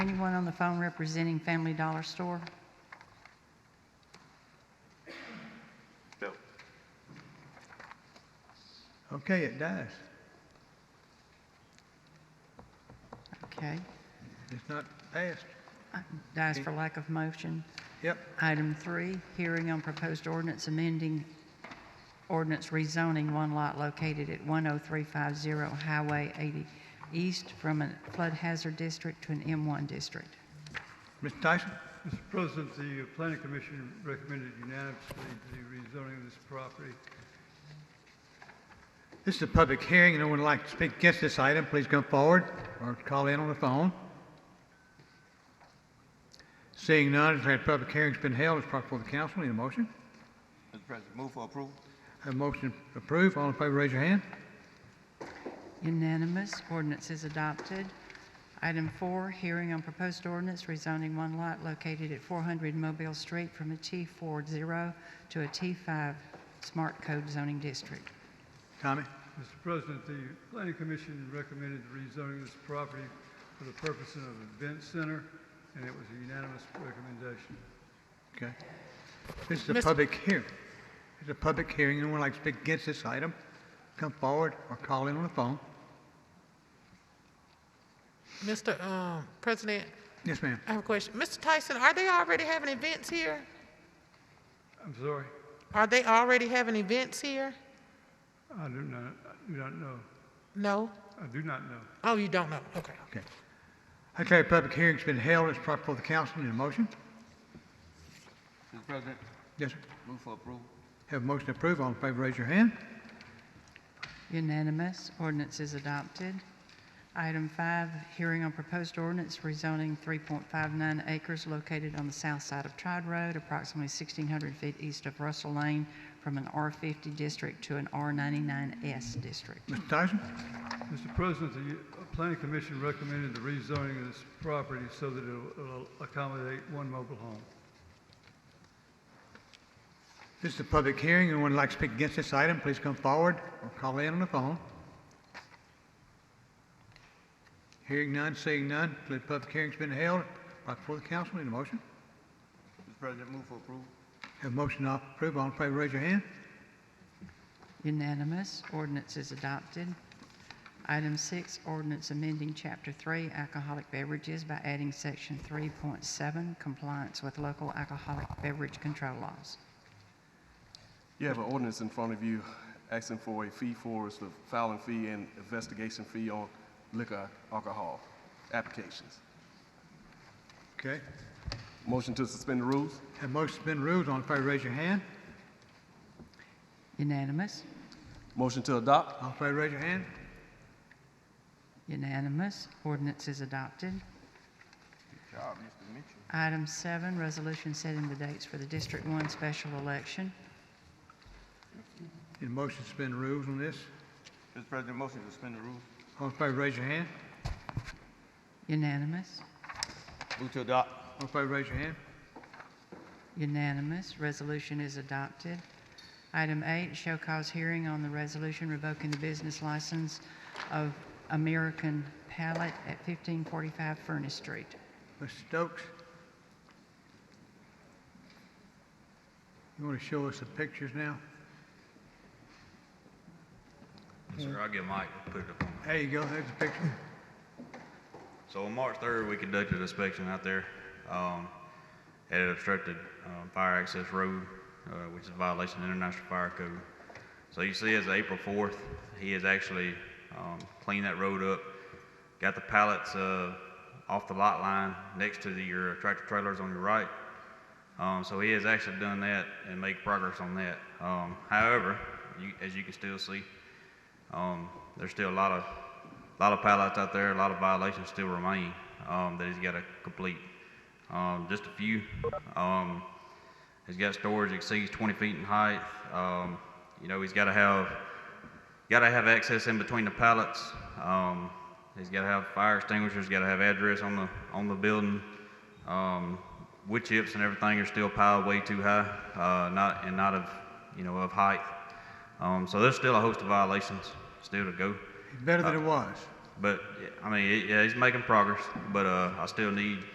Anyone on the phone representing Family Dollar Store? No. Okay, it dies. Okay. It's not passed. Dies for lack of motion. Yep, Item three, hearing on proposed ordinance amending ordinance rezoning one lot located at 10350 Highway 80 East from a flood hazard district to an M1 district. Mr. Tyson? Mr. President, the planning commission recommended unanimously the rezoning of this property. This is a public hearing. Anyone would like to speak against this item, please come forward or call in on the phone. Seeing none, declare the public hearing's been held. It's brought before the council. Need a motion? Mr. President, move for approval. Have a motion approved. All in favor, raise your hand. Unanimous, ordinance is adopted. Item four, hearing on proposed ordinance rezoning one lot located at 400 Mobile Street from a T40 to a T5 Smart Code zoning district. Tommy? Mr. President, the planning commission recommended the rezoning of this property for the purpose of an event center, and it was a unanimous recommendation. Okay. This is a Mr. public hearing. It's a public hearing. Anyone would like to speak against this item, come forward or call in on the phone. Mr. um, President, Yes, ma'am. I have a question. Mr. Tyson, are they already having events here? I'm sorry, Are they already having events here? I do not, I do not know. No? I do not know. Oh, you don't know? Okay. Okay. I declare a public hearing's been held. It's brought before the council. Need a motion? Mr. President, Yes, sir. move for approval. Have a motion approved. All in favor, raise your hand. Unanimous, ordinance is adopted. Item five, hearing on proposed ordinance rezoning 3.59 acres located on the south side of Tride Road, approximately 1,600 feet east of Russell Lane, from an R50 district to an R99S district. Mr. Tyson? Mr. President, the uh, planning commission recommended the rezoning of this property so that it'll it'll accommodate one mobile home. This is a public hearing. Anyone would like to speak against this item, please come forward or call in on the phone. Hearing none, seeing none, declare the public hearing's been held. Brought before the council. Need a motion? Mr. President, move for approval. Have a motion to approve. All in favor, raise your hand. Unanimous, ordinance is adopted. Item six, ordinance amending Chapter 3 alcoholic beverages by adding Section 3.7 compliance with local alcoholic beverage control laws. You have an ordinance in front of you asking for a fee for us, the filing fee and investigation fee on liquor alcohol applications. Okay. Motion to suspend the rules? Have a motion to suspend rules. All in favor, raise your hand. Unanimous, Motion to adopt? All in favor, raise your hand. Unanimous. Ordinance is adopted. Good job, Mr. Mitchell. Item seven, resolution setting the dates for the District One special election. Need a motion to suspend rules on this. Mr. President, motion to suspend the rules. All in favor, raise your hand. Unanimous. Move to adopt. All in favor, raise your hand. Unanimous. Resolution is adopted. Item eight, show cause hearing on the resolution revoking the business license of American Pallet at 1545 Furnace Street. Mr. Stokes? You want to show us the pictures now? Sir, I'll get Mike to put it up on There you go, there's the picture. So on March 3rd, we conducted an inspection out there um, at an obstructed um, fire access road, uh, which is a violation of International Fire Code. So you see, as of April 4th, he has actually um, cleaned that road up, got the pallets uh, off the lot line next to the- your tractor trailers on your right. Um, So he has actually done that and made progress on that. Um, However, you- as you can still see, um, there's still a lot of, lot of pallets out there, a lot of violations still remain, um, that he's gotta complete. Um, just a few, um, he's got storage exceeds twenty feet in height, um, you know, he's gotta have, gotta have access in between the pallets, um, he's gotta have fire extinguishers, gotta have address on the, on the building. Um, wood chips and everything are still piled way too high, uh, not, and not of, you know, of height. Um, so there's still a host of violations still to go. It's better than it was. But, yeah, I mean, yeah, he's making progress, but, uh, I still need